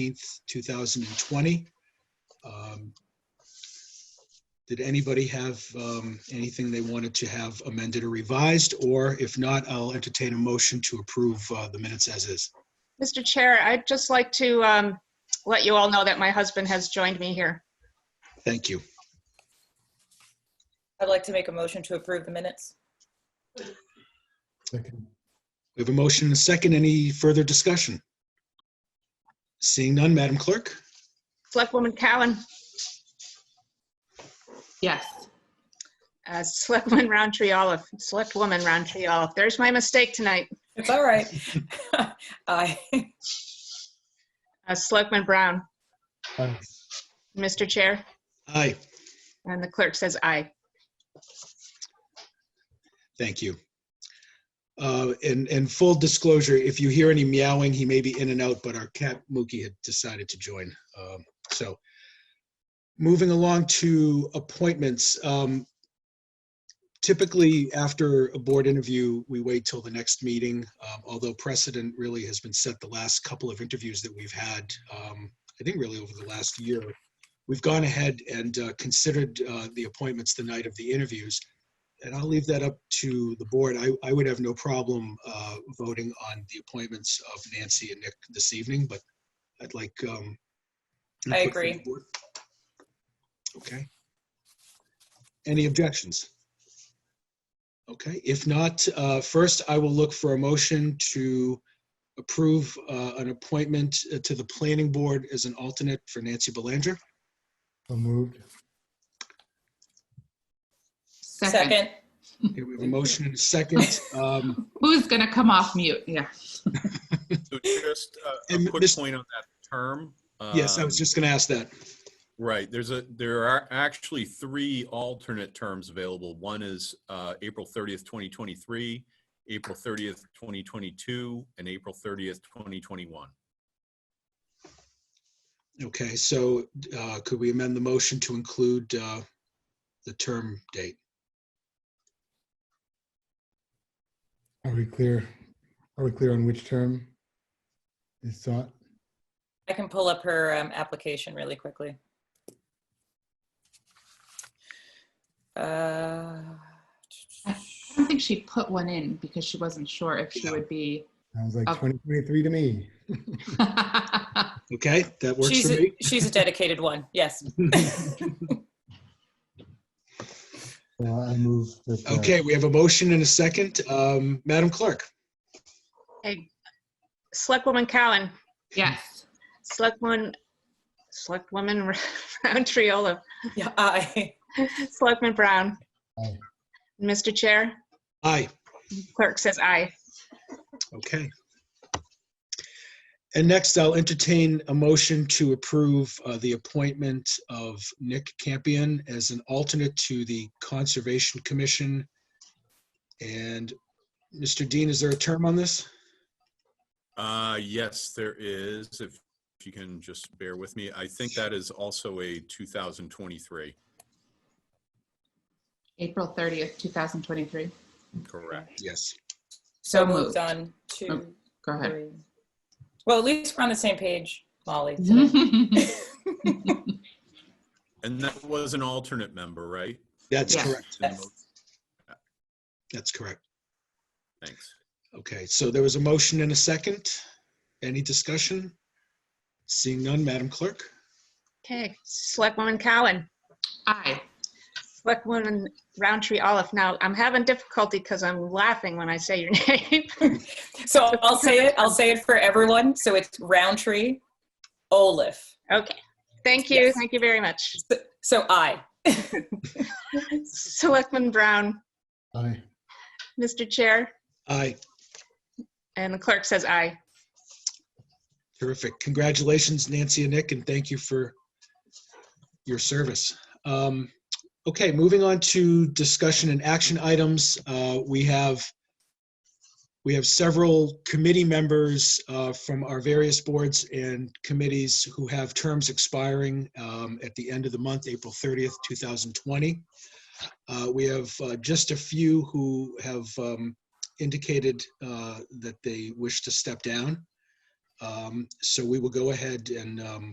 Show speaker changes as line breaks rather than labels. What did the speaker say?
13th, 2020. Um, Did anybody have um, anything they wanted to have amended or revised? Or if not, I'll entertain a motion to approve uh, the minutes as is.
Mr. Chair, I'd just like to um, let you all know that my husband has joined me here.
Thank you.
I'd like to make a motion to approve the minutes.
Second.
We have a motion and a second. Any further discussion? Seeing none, Madam Clerk?
Selectwoman Cowan,
Yes.
uh, Selectwoman Roundtree Olive, Selectwoman Roundtree Olive. There's my mistake tonight.
It's all right. Aye.
Uh, Selectman Brown,
Aye.
Mr. Chair,
Aye.
and the clerk says aye.
Thank you. Uh, And, and full disclosure, if you hear any meowing, he may be in and out, but our cat Mookie had decided to join. Um, So moving along to appointments. um, Typically, after a board interview, we wait till the next meeting, um, although precedent really has been set the last couple of interviews that we've had. um, I think really over the last year. We've gone ahead and uh, considered uh, the appointments the night of the interviews and I'll leave that up to the board. I, I would have no problem uh, voting on the appointments of Nancy and Nick this evening, but I'd like. um,
I
input from the
agree.
board. Okay. Any objections? Okay, if not, uh, first I will look for a motion to approve uh, an appointment uh, to the planning board as an alternate for Nancy Belanger.
So moved.
Second.
Here we have a motion and a second. Um,
Who's going to come off mute? Yeah.
So just a,
And
a quick
Mr.
point on that term.
Yes, I was
Um,
just going to ask that.
Right, there's a, there are actually three alternate terms available. One is uh, April 30th, 2023, April 30th, 2022, and April 30th, 2021.
Okay, so uh, could we amend the motion to include uh, the term date?
Are we clear? Are we clear on which term is sought?
I can pull up her um, application really quickly. Uh,
I don't think she put one in because she wasn't sure if she
Yeah.
would be.
Sounds like
Okay.
2023 to me.
Okay, that works
She's
for
a-
me.
she's a dedicated one, yes.
So I move that. uh,
Okay, we have a motion and a second. Um, Madam Clerk?
Hey, Selectwoman Cowan,
yes.
Selectwoman, Selectwoman Roundtree Olive,
Yeah, Aye.
Selectman Brown.
Aye.
Mr. Chair,
Aye,
clerk says aye.
okay. And next, I'll entertain a motion to approve uh, the appointment of Nick Campion as an alternate to the Conservation Commission. And Mr. Dean, is there a term on this?
Uh, Yes, there is, if if you can just bear with me. I think that is also a 2023,
April 30th, 2023.
correct?
Yes.
So
moved.
moved Oh, on two,
Go ahead.
three. Well, at least we're on the same page, Molly. today.
And that was an alternate member, right?
That's
Yes.
correct.
Yes.
That's correct.
Thanks.
Okay, so there was a motion and a second. Any discussion? Seeing none, Madam Clerk?
Okay, Selectwoman Cowan,
Aye.
Selectwoman Roundtree Olive. Now, I'm having difficulty because I'm laughing when I say your name.
So I'll say it, I'll say it for everyone. So it's Roundtree Olaf.
Okay, thank you,
Yes.
thank you very much.
So I.
Selectman Brown,
Aye.
Mr. Chair,
Aye,
and the clerk says aye.
terrific. Congratulations, Nancy and Nick, and thank you for your service. Um, Okay, moving on to discussion and action items. Uh, We have, we have several committee members uh, from our various boards and committees who have terms expiring um, at the end of the month, April 30th, 2020. Uh, We have uh, just a few who have um, indicated uh, that they wish to step down. Um, So we will go ahead and um,